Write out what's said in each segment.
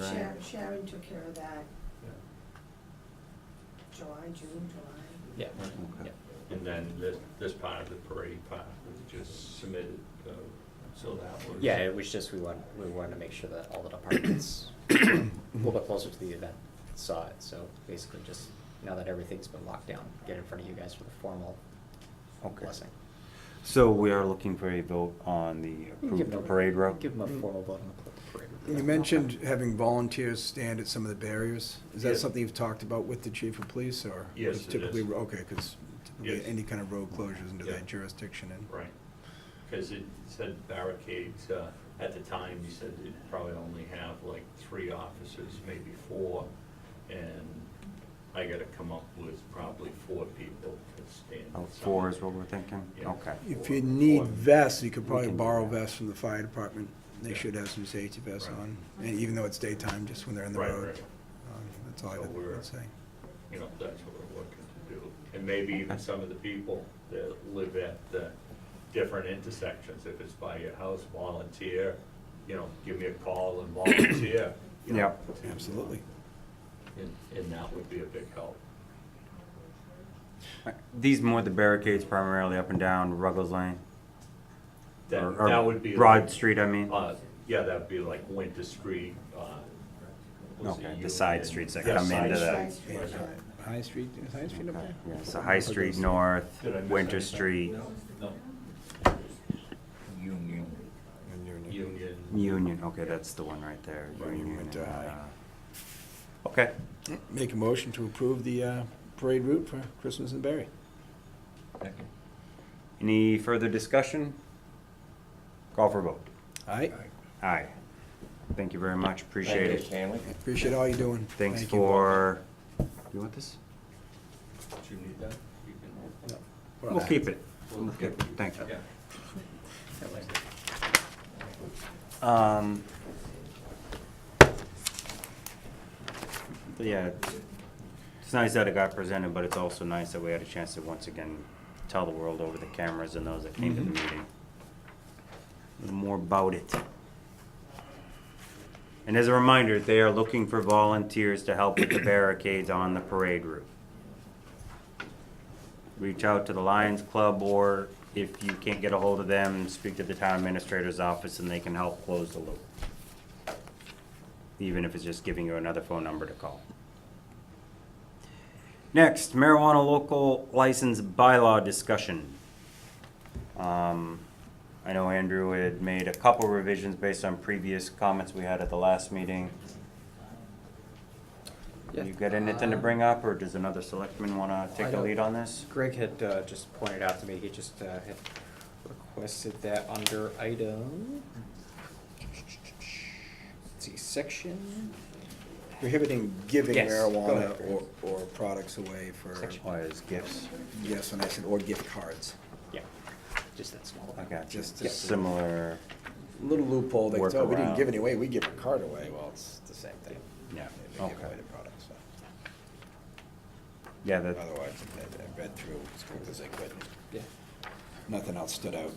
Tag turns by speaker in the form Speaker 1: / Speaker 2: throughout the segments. Speaker 1: Right.
Speaker 2: Sharon, Sharon took care of that,
Speaker 3: Yeah.
Speaker 2: July, June, July.
Speaker 1: Yeah,
Speaker 4: Okay.
Speaker 3: And then this, this part of the parade part was just submitted, uh, so that was.
Speaker 1: yeah, it was just, we want, we wanted to make sure that all the departments a little bit closer to the event saw it, so basically just, now that everything's been locked down, get in front of you guys for the formal
Speaker 4: Okay.
Speaker 1: blessing.
Speaker 4: So we are looking for a vote on the
Speaker 1: You can give them
Speaker 4: approved
Speaker 1: a-
Speaker 4: parade route?
Speaker 1: Give them a formal vote on the parade. route.
Speaker 5: You mentioned having volunteers stand at some of the barriers. Is that
Speaker 3: Yes.
Speaker 5: something you've talked about with the chief of police, or?
Speaker 3: Yes,
Speaker 5: it's
Speaker 3: it
Speaker 5: Typically,
Speaker 3: is.
Speaker 5: okay, because
Speaker 3: Yes.
Speaker 5: typically, any kind of road closures into
Speaker 3: Yeah.
Speaker 5: that jurisdiction, and
Speaker 3: Right, because it said barricades, uh, at the time, you said it'd probably only have like three officers, maybe four, and I gotta come up with probably four people to stand.
Speaker 4: Oh,
Speaker 3: somewhere.
Speaker 4: Four is what we're thinking?
Speaker 3: Yeah.
Speaker 4: Okay.
Speaker 5: if you
Speaker 3: Or-
Speaker 5: need
Speaker 3: or-
Speaker 5: vests, you could
Speaker 4: We
Speaker 5: probably
Speaker 4: can do
Speaker 5: borrow
Speaker 4: that.
Speaker 5: vests from the fire department. They
Speaker 3: Yeah.
Speaker 5: should have some safety vests
Speaker 3: Right.
Speaker 5: on, and even though it's daytime, just when they're in the
Speaker 3: Right,
Speaker 5: road.
Speaker 3: right.
Speaker 5: Um, That's all I
Speaker 3: So
Speaker 5: could-
Speaker 3: we're-
Speaker 5: I'd say.
Speaker 3: you know, that's what we're looking to do. And maybe even some of the people that live at the different intersections, if it's by your house, volunteer, you know, give me a call and volunteer. you know,
Speaker 4: Yep.
Speaker 3: to, uh,
Speaker 5: Absolutely.
Speaker 3: And, and that would be a big help.
Speaker 4: These more the barricades primarily up and down Ruggles Lane?
Speaker 3: That,
Speaker 4: or- or
Speaker 3: that would be.
Speaker 4: Broad
Speaker 3: like,
Speaker 4: Street, I mean?
Speaker 3: Uh, yeah, that'd be like Winter Street, uh. was it
Speaker 4: Okay, the
Speaker 3: Union?
Speaker 4: side streets that
Speaker 3: Yeah,
Speaker 4: come
Speaker 3: side
Speaker 4: into
Speaker 3: streets.
Speaker 4: that.
Speaker 2: Side
Speaker 5: Yeah,
Speaker 2: street,
Speaker 3: Right.
Speaker 5: High Street, is High Street up
Speaker 4: Okay.
Speaker 5: there?
Speaker 4: Yeah, so High Street
Speaker 5: Ruggles.
Speaker 4: North,
Speaker 3: Did I miss
Speaker 4: Winter
Speaker 3: anything?
Speaker 4: Street,
Speaker 3: No,
Speaker 6: Union.
Speaker 5: And you're in-
Speaker 3: Union.
Speaker 4: Union, okay, that's the one right there.
Speaker 5: Right,
Speaker 4: Union
Speaker 5: Winter
Speaker 4: and,
Speaker 5: High.
Speaker 4: uh, Okay,
Speaker 5: Make a motion to approve the uh, parade route for Christmas in Barry.
Speaker 6: Second.
Speaker 4: any further discussion? Call for a vote.
Speaker 5: Aye,
Speaker 4: Aye. Thank you very much, appreciate it.
Speaker 6: Stanley.
Speaker 5: appreciate all you're doing.
Speaker 4: Thanks
Speaker 5: Thank you.
Speaker 4: for, you want this?
Speaker 3: Do you need that? You can-
Speaker 5: Yeah.
Speaker 4: We'll keep it.
Speaker 3: We'll
Speaker 4: We'll keep it. Thank you.
Speaker 3: Yeah.
Speaker 4: Um, but yeah, it's nice that it got presented, but it's also nice that we had a chance to once again tell the world over the cameras and those that came to the
Speaker 5: Mhm.
Speaker 4: meeting. a little More about it. And as a reminder, they are looking for volunteers to help with the barricades on the parade route. Reach out to the Lions Club or if you can't get a hold of them, speak to the town administrator's office and they can help close the loop. Even if it's just giving you another phone number to call. Next, marijuana local license bylaw discussion. Um, I know Andrew had made a couple revisions based on previous comments we had at the last meeting.
Speaker 1: Yeah.
Speaker 4: You got anything to
Speaker 1: Uh,
Speaker 4: bring up, or does another selectman wanna
Speaker 1: I
Speaker 4: take the
Speaker 1: don't-
Speaker 4: lead on this?
Speaker 1: Greg had uh, just pointed out to me, he just uh, had requested that under item. Let's see, section,
Speaker 5: Prohibiting giving
Speaker 1: Yes, go
Speaker 5: marijuana
Speaker 1: ahead.
Speaker 5: or, or products away for,
Speaker 1: Section.
Speaker 4: Or as gifts?
Speaker 5: yes, and I said, or gift cards.
Speaker 1: yeah, just that small.
Speaker 4: I
Speaker 1: one.
Speaker 4: got you.
Speaker 5: Just to-
Speaker 4: Similar,
Speaker 5: Little loophole, they
Speaker 4: Work
Speaker 5: tell, we didn't give
Speaker 4: around.
Speaker 5: any away, we give a card away, well, it's the same thing.
Speaker 4: yeah,
Speaker 5: If They give
Speaker 4: okay.
Speaker 5: away the product, so.
Speaker 4: Yeah, that,
Speaker 5: Otherwise, I, I read through as quick as I could,
Speaker 1: Yeah,
Speaker 5: nothing else stood out.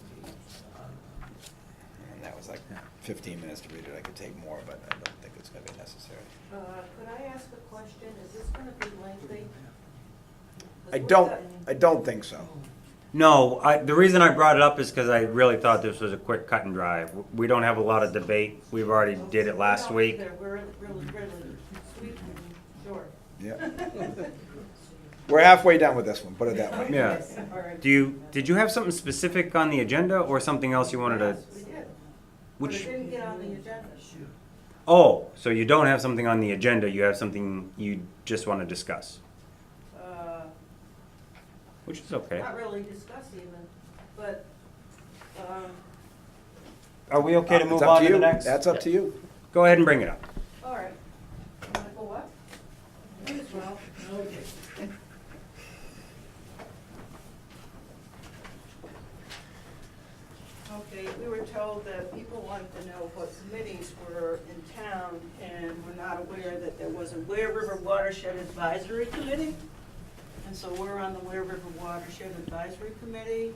Speaker 5: And that was like fifteen minutes to read it, I could take more, but I don't think it's gonna be necessary.
Speaker 7: Uh, Could I ask a question? Is this going to be lengthy?
Speaker 5: I don't, I don't think so.
Speaker 4: no, I, the reason I brought it up is because I really thought this was a quick cut and dry. W- We don't have a lot of debate. We've already did it last
Speaker 7: No,
Speaker 4: week.
Speaker 7: either. We're really, really sweet and short.
Speaker 5: Yeah. We're halfway done with this one, put it that way.
Speaker 4: Yeah.
Speaker 7: All right.
Speaker 4: Do you, did you have something specific on the agenda or something else you wanted to?
Speaker 7: Yes, we did. But it
Speaker 4: Which,
Speaker 7: didn't get on the agenda.
Speaker 4: oh, so you don't have something on the agenda, you have something you just want to discuss,
Speaker 7: Uh,
Speaker 4: which is okay.
Speaker 7: Not really discuss even, but um,
Speaker 4: Are we okay to
Speaker 5: Uh, It's
Speaker 4: move
Speaker 5: up
Speaker 4: on to
Speaker 5: you.
Speaker 4: the next?
Speaker 5: That's up to you.
Speaker 4: Go ahead and bring it up.
Speaker 7: All right. You wanna go what? Might as well. Okay, we were told that people wanted to know what committees were in town and were not aware that there was a Ware River Watershed Advisory Committee. And so we're on the Ware River Watershed Advisory Committee.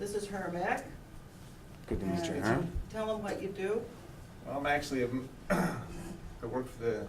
Speaker 7: This is Hermac.
Speaker 4: Good to meet you,
Speaker 7: And
Speaker 4: huh?
Speaker 7: Tell them what you do.
Speaker 8: I'm actually a, m- a
Speaker 5: um, I work for the